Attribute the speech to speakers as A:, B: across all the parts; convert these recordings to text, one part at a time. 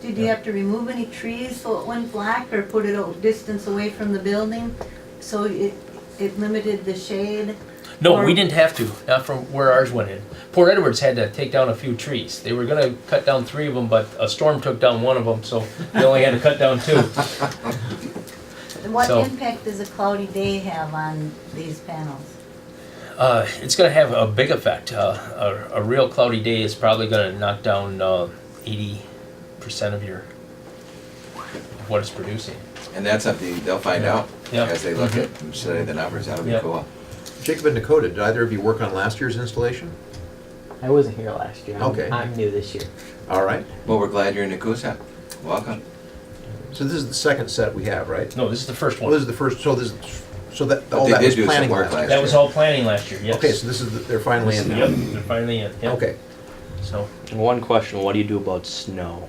A: Did you have to remove any trees so it went black or put it a distance away from the building? So it, it limited the shade?
B: No,
A: Or-
B: we didn't have to, not from where ours went in. Port Edwards had to take down a few trees. They were gonna cut down three of them, but a storm took down one of them, so they only had to cut down two.
A: And What
B: So-
A: impact does a cloudy day have on these panels?
B: Uh, it's gonna have a big effect. Uh, a, a real cloudy day is probably gonna knock down, uh, eighty percent of your, of what it's producing.
C: And that's something they'll find out
B: Yeah. Mm-hmm.
C: as they look at, study the numbers, that'll be
B: Yeah.
C: cool.
D: Jacob and Dakota, did either of you work on last year's installation?
E: I wasn't here last year. I'm,
D: Okay.
E: I'm new this year.
D: All right.
C: Well, we're glad you're in Nakusa, welcome.
D: So this is the second set we have, right?
B: No, this is the first
D: Well, this
B: one.
D: is the first, so this, so that,
C: But
D: all
C: they
D: that
C: did
D: was
C: do some
D: planning
C: work
D: last
C: last
D: year.
B: That was all planning last year, yes.
D: Okay, so this is, the- they're finally in
B: Yep,
D: now.
B: they're finally in, yep.
D: Okay.
B: So,
F: One question: What do you do about snow?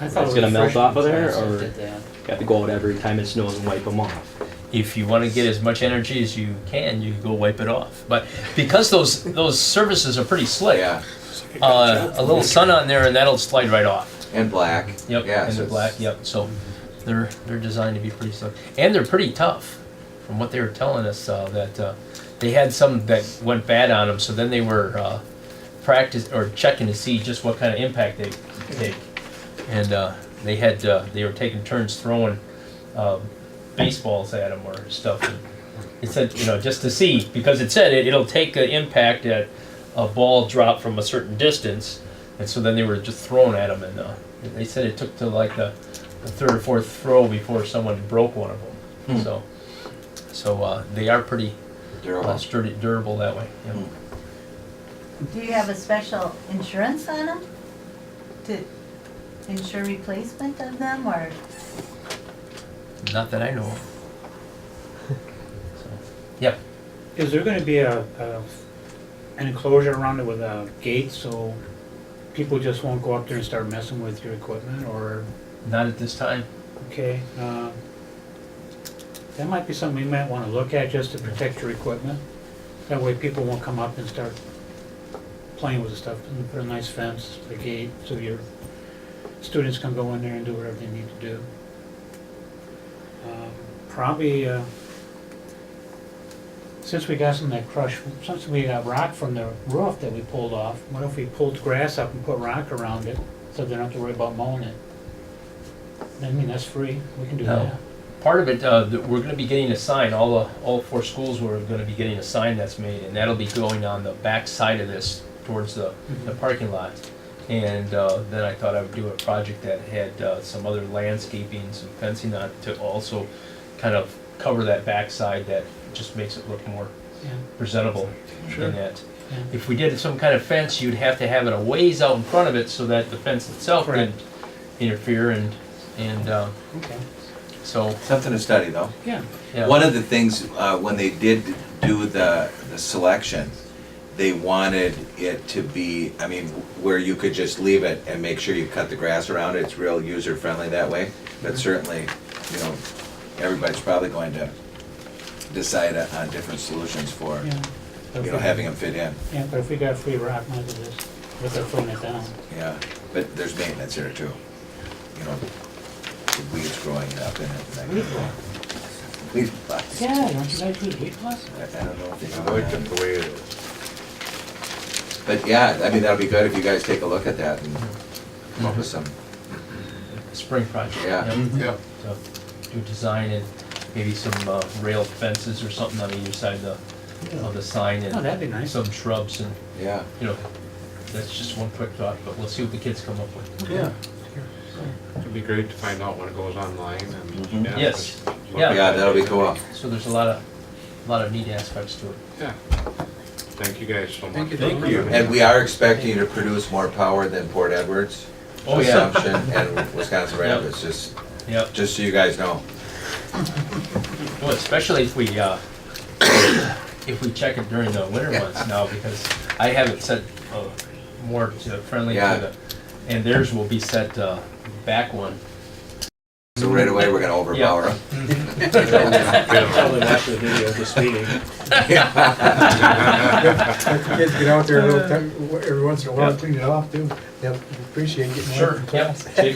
G: I
F: It's
G: thought it was
F: gonna melt
G: freshman
F: off of there,
G: class that
F: or-
G: did that.
F: Got to go out every time it snows and wipe them off.
B: if you want to get as much energy as you can, you go wipe it off. But because those those surfaces are pretty slick,
C: Yeah,
B: uh, a little sun on there and that'll slide right off.
C: and black.
B: Yep,
C: Yeah,
B: and
C: so
B: they're black.
C: it's-
B: Yep, so they're they're designed to be pretty slick, and they're pretty tough. From what they were telling us, uh, that uh, they had some that went bad on them, so then they were uh, practice or checking to see just what kind of impact they take, and uh, they had uh, they were taking turns throwing uh, baseballs at them or stuff. And it said you know just to see because it said it, it'll take an impact at a ball drop from a certain distance, and so then they were just thrown at them, and uh, they said it took to like the, the third or fourth throw before someone broke one of them. So, so uh, they are pretty uh,
C: Durable.
B: sturdy, durable that way. yeah.
C: Mm.
A: Do you have a special insurance on them? To insure replacement of them or?
B: Hmm. Not that I know. of. So, yeah,
G: Is there gonna be a, a- an enclosure around it with a gate, so people just won't go up there and start messing with your equipment, or,
B: not at this time.
G: okay? uh, That might be something we might wanna look at, just to protect your equipment. That way people won't come up and start playing with the stuff, and put a nice fence, a gate, so your students can go in there and do whatever they need to do. Um, Probably, uh, since we got some of that crush, since we got rock from the roof that we pulled off, what if we pulled grass up and put rock around it, so they don't have to worry about mowing it? I mean, that's free, we can do
B: No.
G: that.
B: Part of it, uh, that we're going to be getting a sign. All the all four schools were going to be getting a sign that's made, and that'll be going on the back side of this towards the
G: Mm-hmm.
B: the parking lot. And uh, then I thought I would do a project that had uh, some other landscaping, some fencing on to also kind of cover that backside that just makes it look more
G: Yeah,
B: presentable than that.
G: Yeah.
B: If we did some kind of fence, you'd have to have it a ways out in front of it so that the fence itself
G: Correct.
B: didn't interfere and, and uh,
G: okay,
B: so,
C: Something to study though.
G: yeah.
B: yeah.
C: One of the things, uh, when they did do the, the selection, they wanted it to be, I mean, where you could just leave it and make sure you cut the grass around it, it's real user friendly that way.
B: Mm-hmm.
C: But certainly, you know, everybody's probably going to decide on different solutions for,
G: Yeah. But if
C: you know,
G: we-
C: having them fit in,
G: Yeah, but if we got free rock, might as well just, let them throwing it down.
C: yeah. But there's maintenance here too, you know, the weeds growing up in it. and that kind of thing. Weed plots. I
G: Yeah, don't you guys do weed plots?
C: I don't know if they.
D: I
C: do that.
D: like them the way it is.
C: But yeah, I mean, that'll be good if you guys take a look at that and come up with some,
B: Spring project.
C: Yeah.
G: Mm-hmm.
D: Yeah.
B: So, Do design and maybe some uh, rail fences or something on either side of the, of the sign
G: Oh,
B: and
G: that'd be nice.
B: some shrubs and,
C: yeah.
B: you know, that's just one quick thought, but we'll see what the kids come up with.
D: Yeah.
H: It'd be great to find out when it goes online
C: Mhm.
H: and.
B: Yes.
H: just look
B: Yeah.
H: at
C: Yeah,
H: it.
C: that'll be cool.
B: So there's a lot of, a lot of neat aspects to it.
H: Yeah. Thank you guys so much.
D: Thank you.
B: Thank you.
C: And we are expecting you to produce more power than Port Edwards.
B: Oh, yeah.
C: Assumption and Wisconsin Rapids, just,
B: Yep.
C: just so you guys know.
B: Well, especially if we, uh, if we check it during the winter months now, because I have it set, uh, more to friendly
C: Yeah.
B: to the, and theirs will be set, uh, back one.
C: So right away, we're gonna overpower them.
G: Probably watch the video of this meeting.
I: Kids get out there a little, time- every once in a while, clean it off too. Yep, appreciate getting away
B: Sure,
I: from class.
B: yep.